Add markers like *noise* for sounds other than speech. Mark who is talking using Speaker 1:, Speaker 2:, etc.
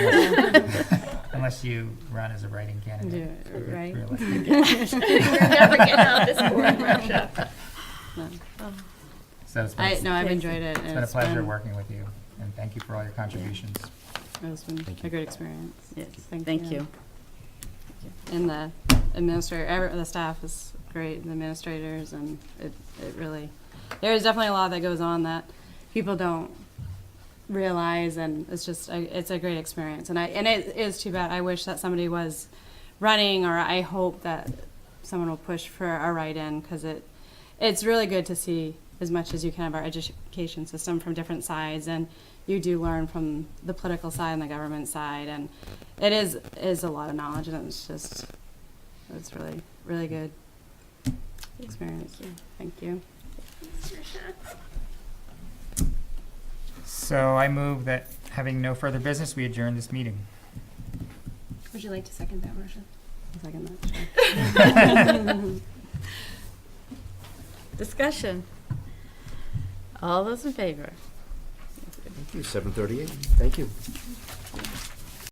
Speaker 1: *laughs* Unless you run as a writing
Speaker 2: Yeah,
Speaker 1: candidate. for
Speaker 2: right.
Speaker 1: reelection.
Speaker 3: We're never getting out of this board workshop.
Speaker 2: No.
Speaker 1: So it's been,
Speaker 2: I,
Speaker 1: it's
Speaker 2: no, I've enjoyed it.
Speaker 1: been a pleasure working with you, and thank you for all your contributions.
Speaker 2: It's been
Speaker 4: Thank
Speaker 2: a
Speaker 4: you.
Speaker 2: great experience.
Speaker 5: Yes,
Speaker 2: Thank
Speaker 5: thank
Speaker 2: you.
Speaker 5: you.
Speaker 2: And the administrator, every- the staff is great, the administrators, and it, it really, there is definitely a lot that goes on that people don't realize, and it's just, I- it's a great experience. And I, and it is too bad, I wish that somebody was running, or I hope that someone will push for a write-in, because it, it's really good to see as much as you can of our education system from different sides, and you do learn from the political side and the government side, and it is is a lot of knowledge, and it's just it's really really good experience. Thank you.
Speaker 1: So I move that, having no further business, we adjourn this meeting.
Speaker 3: Would you like to second that motion?
Speaker 2: I'll second that, sure.
Speaker 5: Discussion. All those in favor?
Speaker 4: Thank you, seven thirty-eight, thank you.